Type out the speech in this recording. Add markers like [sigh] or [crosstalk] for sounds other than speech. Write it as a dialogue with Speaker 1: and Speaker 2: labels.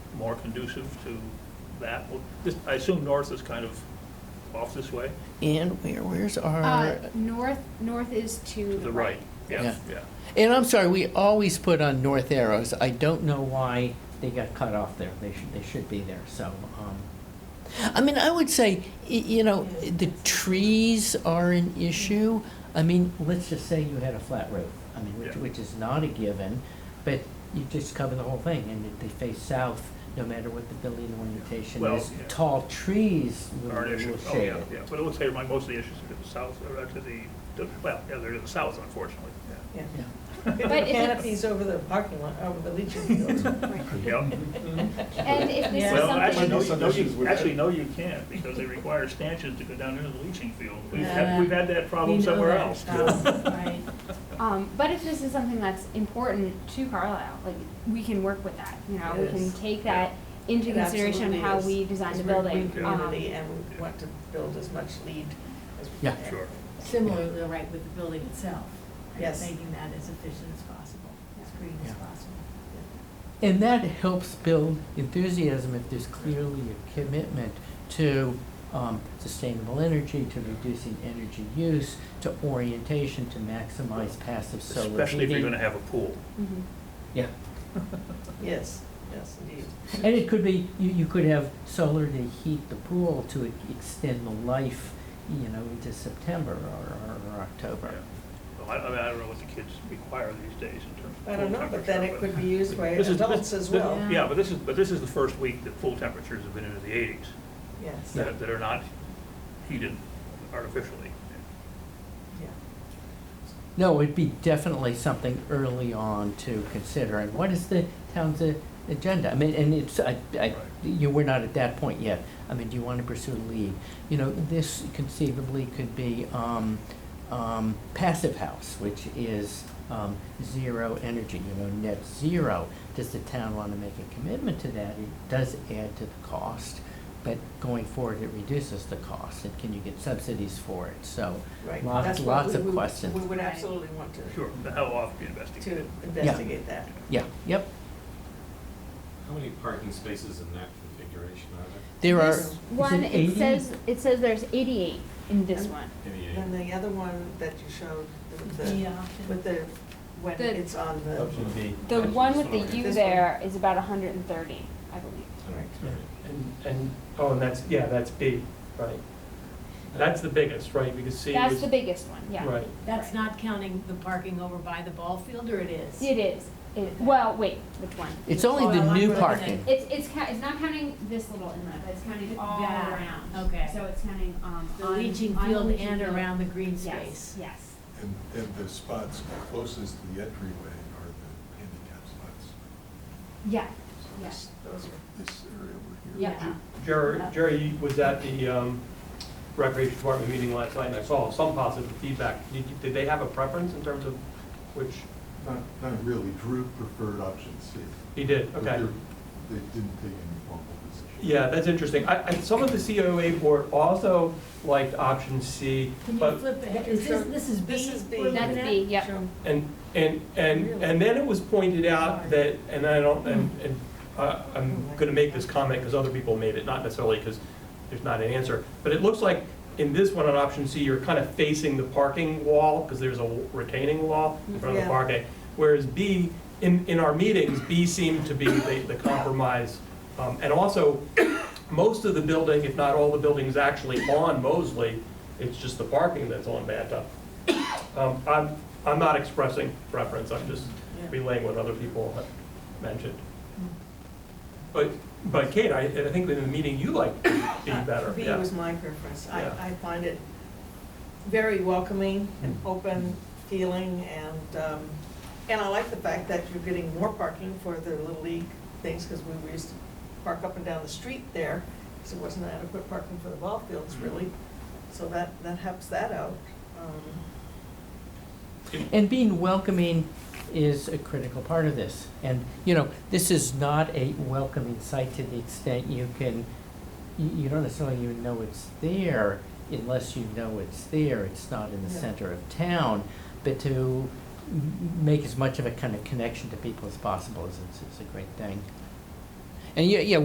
Speaker 1: more conducive to that? Well, this- I assume north is kind of off this way,
Speaker 2: And where, where's
Speaker 3: Uh,
Speaker 2: our,
Speaker 3: north, north is to
Speaker 1: to the right. Yeah,
Speaker 2: Yeah.
Speaker 1: yeah.
Speaker 2: and I'm sorry, we always put on north arrows. I don't know why they got cut off there. They should, they should be there, so. um, I mean, I would say, y- you know, the trees are an issue. I mean, let's just say you had a flat roof, I mean, which,
Speaker 1: Yeah.
Speaker 2: which is not a given, but you just cover the whole thing and if they face south, no matter what the building orientation
Speaker 1: Well,
Speaker 2: is,
Speaker 1: yeah.
Speaker 2: tall trees will
Speaker 1: Or an
Speaker 2: will shade
Speaker 1: issue.
Speaker 2: it.
Speaker 1: Oh, yeah, yeah. But it looks like my- most of the issues are to the south, or to the, to- well, yeah, they're to the south, unfortunately. Yeah.
Speaker 4: Yeah.
Speaker 2: Yeah.
Speaker 3: But if it-
Speaker 4: Canopies over the parking lot, over the
Speaker 1: [laughs]
Speaker 4: leaching field.
Speaker 1: Yeah.
Speaker 3: And if this is
Speaker 1: Well, actually, no,
Speaker 3: something,
Speaker 1: you,
Speaker 5: Some
Speaker 1: no,
Speaker 5: issues
Speaker 1: you,
Speaker 5: with
Speaker 1: actually,
Speaker 5: that.
Speaker 1: no, you can't, because they require stanchions to go down into the leaching field. We've
Speaker 4: Yeah.
Speaker 1: had, we've had that problem
Speaker 4: We know
Speaker 1: somewhere
Speaker 4: that.
Speaker 1: else.
Speaker 4: Oh, right.
Speaker 3: um, but if this is something that's important to Carlisle, like, we can work with that, you know, we
Speaker 4: It
Speaker 3: can
Speaker 4: is.
Speaker 3: take that into
Speaker 4: It
Speaker 3: consideration of
Speaker 4: absolutely
Speaker 3: how
Speaker 4: is,
Speaker 3: we design the
Speaker 4: because we're a
Speaker 3: building.
Speaker 4: Green
Speaker 3: um,
Speaker 4: community, and we want to build as much lead as we
Speaker 2: Yeah.
Speaker 4: can.
Speaker 1: Sure.
Speaker 6: Similarly, right, with the building itself. right,
Speaker 4: Yes.
Speaker 6: Making that as efficient as possible, as green as
Speaker 2: Yeah.
Speaker 6: possible.
Speaker 2: And that helps build enthusiasm if there's clearly a commitment to um, sustainable energy, to reducing energy use, to orientation, to maximize passive solar heating.
Speaker 1: Especially if you're gonna have a pool. [laughs]
Speaker 3: mhm.
Speaker 2: Yeah,
Speaker 4: [laughs] Yes, yes, indeed.
Speaker 2: and it could be, you, you could have solar to heat the pool to e- extend the life, you know, into September or, or- or October.
Speaker 1: Well, I, I mean, I don't know what the kids require these days in terms of
Speaker 4: I don't
Speaker 1: pool
Speaker 4: know, but then
Speaker 1: temperature,
Speaker 4: it could be used by
Speaker 1: This is- this-
Speaker 4: adults as
Speaker 1: this-
Speaker 4: well.
Speaker 1: Yeah, but this is, but this is the first week that pool temperatures have been into the eighties,
Speaker 4: Yes,
Speaker 2: Yeah.
Speaker 1: that, that are not heated artificially.
Speaker 4: yeah.
Speaker 2: No, it'd be definitely something early on to consider, and what is the town's uh, agenda? I mean, and it's, I, I,
Speaker 1: Right.
Speaker 2: you, we're not at that point yet. I mean, do you want to pursue lead? You know, this conceivably could be, um, um, passive house, which is, um, zero energy, you know, net zero. Does the town want to make a commitment to that? It does add to the cost, but going forward, it reduces the cost, and can you get subsidies for it? So,
Speaker 4: Right.
Speaker 2: lots,
Speaker 4: That's what
Speaker 2: lots
Speaker 4: we
Speaker 2: of
Speaker 4: would-
Speaker 2: questions.
Speaker 4: We would
Speaker 6: Right.
Speaker 4: absolutely want to.
Speaker 1: Sure, but how often do you
Speaker 4: To
Speaker 1: investigate?
Speaker 4: investigate that.
Speaker 2: Yeah, yep.
Speaker 5: How many parking spaces in that configuration are there?
Speaker 2: There are.
Speaker 3: This
Speaker 2: is
Speaker 3: One, it
Speaker 2: 80?
Speaker 3: says, it says there's eighty-eight in this
Speaker 4: And-
Speaker 3: one.
Speaker 5: Any
Speaker 4: And the other one that you showed, with
Speaker 6: The uh,
Speaker 4: the,
Speaker 6: option.
Speaker 4: with the, when
Speaker 3: The-
Speaker 4: it's on the.
Speaker 3: The
Speaker 5: Actually,
Speaker 3: one
Speaker 5: this
Speaker 3: with
Speaker 5: one over
Speaker 3: the
Speaker 5: here.
Speaker 3: U
Speaker 4: This one.
Speaker 3: there is about hundred and thirty, I believe.
Speaker 4: Right.
Speaker 7: And, and, oh, and that's, yeah, that's B, right. That's the biggest, right, because C
Speaker 3: That's
Speaker 7: was,
Speaker 3: the biggest one, yeah.
Speaker 7: right,
Speaker 6: That's not counting the parking over by the ball field, or it is?
Speaker 3: It is, it, well, wait, which one?
Speaker 2: It's only
Speaker 6: Oh,
Speaker 2: the
Speaker 6: I
Speaker 2: new
Speaker 6: like what they
Speaker 2: parking.
Speaker 3: It's, it's, ca- it's not counting this little inlet, but it's counting all
Speaker 6: That,
Speaker 3: around.
Speaker 6: Oh, okay.
Speaker 3: So it's counting, um,
Speaker 6: The
Speaker 3: on-
Speaker 6: leaching
Speaker 3: on the
Speaker 6: field
Speaker 3: leaching
Speaker 6: and
Speaker 3: field.
Speaker 6: around the green
Speaker 3: Yes,
Speaker 6: space?
Speaker 3: yes.
Speaker 8: And, and the spots closest to the entryway are the handicap spots.
Speaker 3: Yeah,
Speaker 8: So
Speaker 3: Yeah.
Speaker 8: this,
Speaker 4: Those are-
Speaker 8: this area over here.
Speaker 3: yeah.
Speaker 7: Jerry, Jerry was at the um, Recreation Department meeting last night, and I saw some positive feedback. Did did they have a preference in terms of which,
Speaker 8: Not, not really, Drew preferred option C.
Speaker 7: he did,
Speaker 8: but
Speaker 7: okay.
Speaker 8: they're- They didn't take any formal position.
Speaker 7: Yeah, that's interesting. I, I, some of the COA board also liked option C,
Speaker 6: Can you
Speaker 7: but,
Speaker 6: flip ahead, is this, this is B?
Speaker 4: This is B.
Speaker 6: we're looking
Speaker 3: That's
Speaker 6: at?
Speaker 3: B, yep.
Speaker 4: Sure.
Speaker 7: and, and, and, and then it was pointed out that, and I don't, and, and uh, I'm gonna make this comment because other people made it, not necessarily because there's not an answer, but it looks like in this one on option C, you're kind of facing the parking wall, because there's a retaining wall in front of the
Speaker 4: Yeah.
Speaker 7: parking. Whereas B, in, in our meetings, B seemed to be the, the compromise. Um, And also, most of the building, if not all the buildings actually on Mosley, it's just the parking that's on Manta. Um, I'm, I'm not expressing preference, I'm just
Speaker 4: Yeah.
Speaker 7: relaying what other people have mentioned. But, but Kate, I, I think in the meeting, you liked B
Speaker 4: [laughs]
Speaker 7: better,
Speaker 4: B
Speaker 7: yeah.
Speaker 4: Uh, was my preference. I,
Speaker 7: Yeah.
Speaker 4: I find it very welcoming and
Speaker 7: Mm.
Speaker 4: open feeling and, um, and I like the fact that you're getting more parking for the Little League things because we used to park up and down the street there because it wasn't adequate parking for the ball fields
Speaker 7: Mm.
Speaker 4: really. So that, that helps that out. Um,
Speaker 2: And being welcoming is a critical part of this. And, you know, this is not a welcoming site to the extent you can, you, you don't necessarily even know it's there unless you know it's there. It's not in the
Speaker 4: Yeah.
Speaker 2: center of town. But to m- make as much of a kind of connection to people as possible is, is is a great thing. And yeah, yeah,